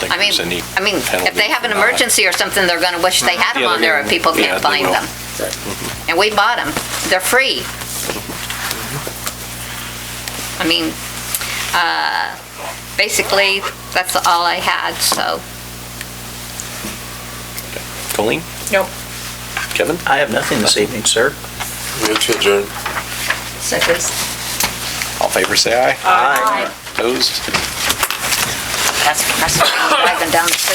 think I mean, there's any I mean, if they penalty have an for not. Mm-hmm. emergency or something, they're going to wish they had them Yeah, on they're there and people gonna- yeah, can't they find will. Mm-hmm. them. And we bought them. They're free. Mm-hmm. I mean, uh, basically, that's all I had, so. Colleen, Nope. Kevin? I have nothing this evening, sir. Move to adjourn. All in favor, say aye. Aye. Opposed? That's, that's driving down the